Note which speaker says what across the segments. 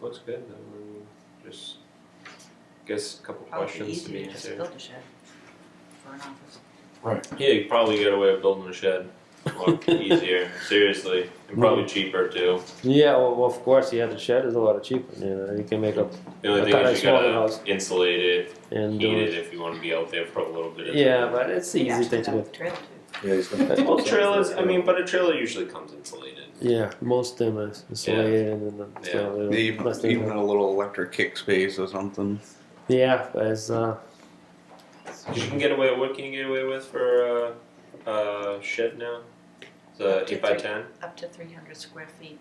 Speaker 1: looks good, then we're just, guess a couple
Speaker 2: Probably
Speaker 1: questions to
Speaker 2: easy
Speaker 1: be
Speaker 2: to just
Speaker 1: answered.
Speaker 2: build a shed for an office.
Speaker 1: Yeah, you probably get away with building a shed, a lot easier, seriously, and probably cheaper too.
Speaker 3: Yeah, well, well, of course, yeah, the shed is a lot cheaper, you know, you can make up
Speaker 1: The only
Speaker 3: I
Speaker 1: thing
Speaker 3: thought
Speaker 1: is
Speaker 3: I
Speaker 1: you
Speaker 3: saw the
Speaker 1: gotta
Speaker 3: house.
Speaker 1: insulate it,
Speaker 3: and do
Speaker 1: heat it
Speaker 3: it.
Speaker 1: if you wanna be out there for a little bit of time.
Speaker 3: Yeah, but it's the easy thing to do.
Speaker 4: Yeah, he's gonna.
Speaker 1: Well, trailers, I mean, but a trailer usually comes insulated.
Speaker 3: Yeah, most of them is insulated and then, you know, they don't-
Speaker 5: Even,
Speaker 3: less than
Speaker 5: even
Speaker 3: that.
Speaker 5: a little electric kick space or something.
Speaker 3: yeah, but it's, uh,
Speaker 1: 'Cause You can get away, what can you get away with for a, a shed now? It's a eight by ten?
Speaker 2: Up to three hundred square feet.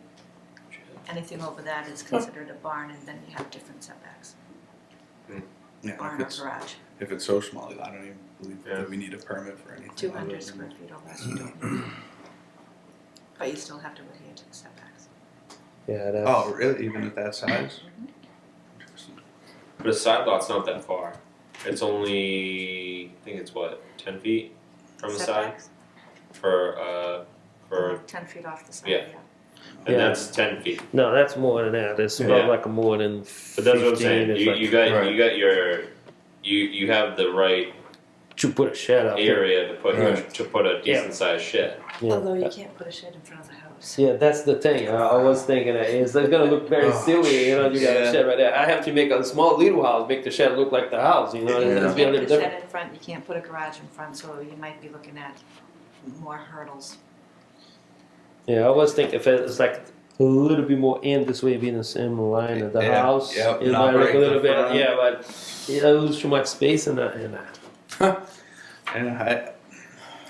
Speaker 2: Anything over that is considered a barn and then you have different setbacks,
Speaker 5: Yeah, if
Speaker 2: barn or
Speaker 5: it's,
Speaker 2: garage.
Speaker 5: if it's so small, I don't even believe
Speaker 1: Yeah.
Speaker 5: that we need a permit for anything.
Speaker 2: Two
Speaker 5: other
Speaker 2: hundred
Speaker 5: than-
Speaker 2: square feet or less, you don't. But you still have to adhere to the setbacks.
Speaker 3: yeah, that's,
Speaker 5: Oh, really? Even at that size? Interesting.
Speaker 1: But a side lot's not that far. It's only, I think it's what, ten feet from the side
Speaker 2: Setbacks,
Speaker 1: for uh for,
Speaker 2: ten feet off the side, yeah.
Speaker 1: Yeah.
Speaker 3: Yeah.
Speaker 1: and that's ten feet.
Speaker 3: no, that's more than that. It's about
Speaker 1: Yeah.
Speaker 3: like a more than
Speaker 1: But that's what I'm
Speaker 3: 15,
Speaker 1: saying.
Speaker 3: it's
Speaker 1: You,
Speaker 3: like-
Speaker 1: you got
Speaker 4: Right.
Speaker 1: you got your you you have the right
Speaker 3: to put a shed up there.
Speaker 1: area to put
Speaker 4: Right.
Speaker 1: to put a
Speaker 3: Yeah.
Speaker 1: decent sized shed.
Speaker 3: Yeah.
Speaker 2: Although you can't put a shed in front of the house.
Speaker 3: Yeah, that's the thing. I, I was thinking that it's, it's gonna look very
Speaker 5: Oh,
Speaker 3: silly, you know. You got
Speaker 5: yeah.
Speaker 3: a shed right there. I have to make a small little house, make the shed look like the house, you know. It's,
Speaker 2: You
Speaker 3: it's be a
Speaker 2: can't put
Speaker 3: little
Speaker 2: a
Speaker 3: different.
Speaker 2: shed in front, you can't put a garage in front, so you might be looking at more hurdles.
Speaker 3: Yeah, I always think if it's like a little bit more in this way, being the same line of the
Speaker 5: Yeah,
Speaker 3: house,
Speaker 5: yeah,
Speaker 3: it
Speaker 5: not
Speaker 3: might look
Speaker 5: right
Speaker 3: a
Speaker 5: in
Speaker 3: little
Speaker 5: the
Speaker 3: bit.
Speaker 5: front.
Speaker 3: Yeah, but it lose too much space in that. In that.
Speaker 5: And I,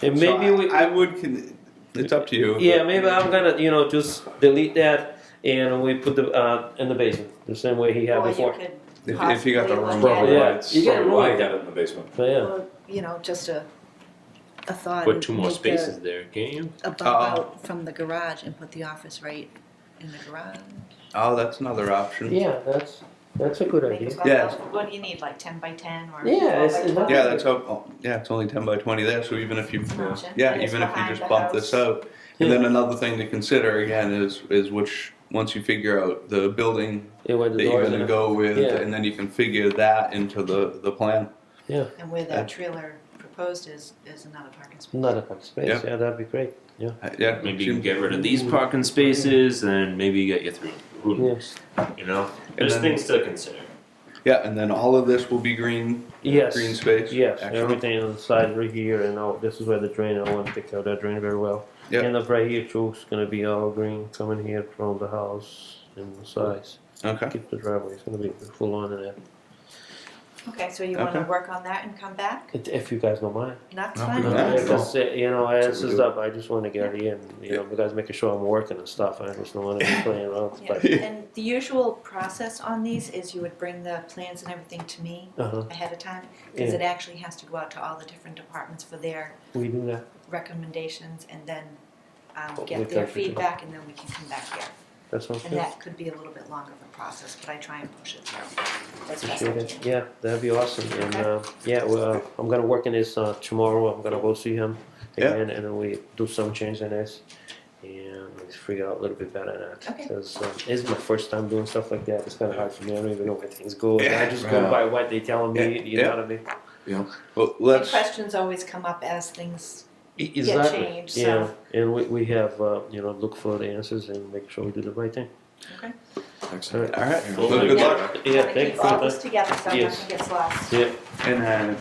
Speaker 3: And
Speaker 5: so
Speaker 3: maybe
Speaker 5: I-
Speaker 3: we.
Speaker 5: I would. Con- it's up to you.
Speaker 3: yeah,
Speaker 5: but-
Speaker 3: maybe I'm gonna you know just delete that and we put the uh, in the basement the same way he had
Speaker 2: Or you
Speaker 3: before.
Speaker 2: could
Speaker 5: If, if you got
Speaker 2: Possibly
Speaker 5: the room,
Speaker 2: look at-
Speaker 4: Probably
Speaker 3: Yeah,
Speaker 4: why it's,
Speaker 3: you get it
Speaker 4: probably why I
Speaker 3: wrong.
Speaker 4: got it in the basement.
Speaker 3: But yeah,
Speaker 2: Well, you know, just a, a thought.
Speaker 1: Put
Speaker 2: and
Speaker 1: two more
Speaker 2: make
Speaker 1: spaces there, can't you?
Speaker 2: A bump
Speaker 5: Uh-oh.
Speaker 2: out from the garage and put the office right in the garage.
Speaker 5: oh, that's another option.
Speaker 3: yeah, that's that's a good
Speaker 2: Make a
Speaker 3: idea.
Speaker 2: bump
Speaker 5: Yeah.
Speaker 2: out. What do you need, like ten by ten or?
Speaker 3: Yeah,
Speaker 2: 12 by
Speaker 3: it's- it's
Speaker 2: 12?
Speaker 5: Yeah, that's up. oh, Yeah, it's only ten by twenty there. So even if you,
Speaker 2: It's an option.
Speaker 5: yeah,
Speaker 2: And it's
Speaker 5: even if you
Speaker 2: behind
Speaker 5: just
Speaker 2: the
Speaker 5: bump
Speaker 2: house.
Speaker 5: this up, and then another thing to consider again is is which once you figure out the building
Speaker 3: Yeah, where the
Speaker 5: that you're
Speaker 3: doors
Speaker 5: going to
Speaker 3: and-
Speaker 5: go with,
Speaker 3: Yeah.
Speaker 5: and then you can figure that into the the plan.
Speaker 2: And where
Speaker 5: Yeah.
Speaker 2: that trailer proposed is, is another parking space.
Speaker 3: Another kind of space.
Speaker 5: Yeah.
Speaker 3: Yeah, that'd be great.
Speaker 5: Uh, Yeah,
Speaker 1: Maybe you
Speaker 5: seems-
Speaker 1: can get rid of these parking spaces and maybe you get your three rooms. You know? There's
Speaker 5: then-
Speaker 1: things to consider.
Speaker 5: Yeah, and then all of this will be green,
Speaker 3: Yes.
Speaker 5: green space.
Speaker 3: Yes,
Speaker 5: Excellent.
Speaker 3: everything on the side right here, and all, this is where the drain. I want to pick out that drain very well.
Speaker 5: Yep.
Speaker 3: And up right here too, it's gonna be all green coming here from the house and the sides.
Speaker 5: Okay.
Speaker 3: Keep the driveway. It's gonna be full on in there.
Speaker 2: Okay, so you
Speaker 5: Okay.
Speaker 2: wanna work on that and come back?
Speaker 3: If- If you guys don't mind.
Speaker 2: That's
Speaker 5: No,
Speaker 2: fine.
Speaker 5: we
Speaker 3: Uh,
Speaker 5: don't.
Speaker 2: That's-
Speaker 3: because, uh, you know, as
Speaker 5: That's what we
Speaker 3: is
Speaker 5: do.
Speaker 3: up, I just want to get in. You know, because making sure I'm working and stuff. I just don't want to be playing around.
Speaker 2: yeah.
Speaker 3: But
Speaker 2: And the usual process on these is you would bring the plans and everything to me
Speaker 3: uh-huh.
Speaker 2: ahead of time, cause
Speaker 3: Yeah.
Speaker 2: it actually has to go out to all the different departments for their
Speaker 3: we do that.
Speaker 2: recommendations and then um,
Speaker 3: But we
Speaker 2: get their
Speaker 3: can-
Speaker 2: feedback and then we can come back here.
Speaker 3: That sounds
Speaker 2: And
Speaker 3: good.
Speaker 2: that could be a little bit longer of a process, but I try and push it through. as best I
Speaker 3: Appreciate it.
Speaker 2: can.
Speaker 3: Yeah, that'd be awesome. And
Speaker 2: Okay.
Speaker 3: uh, yeah, well, uh, I'm gonna work on this uh, tomorrow. I'm gonna go see him
Speaker 5: Yeah.
Speaker 3: again, and then we do some change in this, and let's figure out a little bit better that.
Speaker 2: Okay.
Speaker 3: Because um, it's my first time doing stuff like that. It's kind of hard for me. I don't even know where things go.
Speaker 5: Yeah.
Speaker 3: I just go
Speaker 4: Right.
Speaker 3: by what they telling me.
Speaker 5: Yeah.
Speaker 3: You
Speaker 5: Yeah.
Speaker 3: know what I mean?
Speaker 5: Well,
Speaker 2: The
Speaker 5: let's.
Speaker 2: questions always come up as things
Speaker 3: E-
Speaker 2: get changed,
Speaker 3: Yeah,
Speaker 2: so,
Speaker 3: and we, we have uh, you know look for the answers and make sure we do the right thing.
Speaker 2: okay.
Speaker 4: Excellent.
Speaker 5: All right.
Speaker 4: Yeah.
Speaker 5: Well, good luck.
Speaker 3: Yeah,
Speaker 2: Kinda
Speaker 3: thank you
Speaker 2: keep
Speaker 3: for
Speaker 2: all
Speaker 3: that.
Speaker 2: this together so
Speaker 3: Yes.
Speaker 2: nothing gets lost.
Speaker 3: Yeah,
Speaker 5: And uh,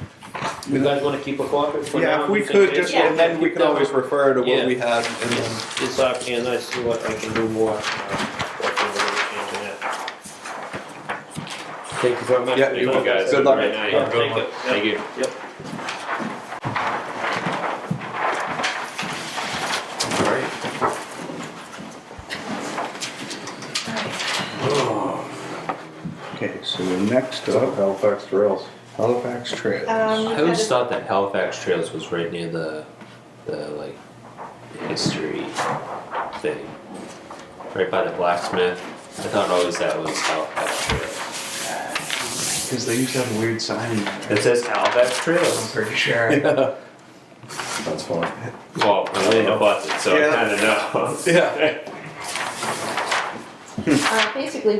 Speaker 3: you guys want to keep a copy for now?
Speaker 5: yeah, if we
Speaker 3: just in
Speaker 5: could
Speaker 3: case?
Speaker 5: just,
Speaker 2: Yeah.
Speaker 5: and then we can always refer to what
Speaker 3: Yeah.
Speaker 5: we have. And then,
Speaker 3: It's up and I see what I can do more. uh, what can we change in it. Thank you very much.
Speaker 5: Yeah,
Speaker 3: for
Speaker 5: you're
Speaker 3: your time,
Speaker 5: welcome.
Speaker 3: guys.
Speaker 5: Good luck.
Speaker 1: Right now,
Speaker 3: Yeah,
Speaker 1: you're good
Speaker 3: thank
Speaker 1: one.
Speaker 3: you.
Speaker 1: Thank you.
Speaker 4: All right.
Speaker 5: okay, so next up, Halifax Trails. Halifax Trails.
Speaker 2: Um,
Speaker 1: I always thought that Halifax Trails was right near the, the like, history thing, right by the blacksmith. I thought always that was Halifax Trails.
Speaker 4: Because they used to have weird signs.
Speaker 1: It says Halifax
Speaker 4: I'm
Speaker 1: Trails.
Speaker 4: pretty sure.
Speaker 1: well,
Speaker 4: That's funny.
Speaker 1: Elena bought it, so
Speaker 5: Yeah.
Speaker 1: I kind of know.
Speaker 5: Yeah.
Speaker 2: uh, basically,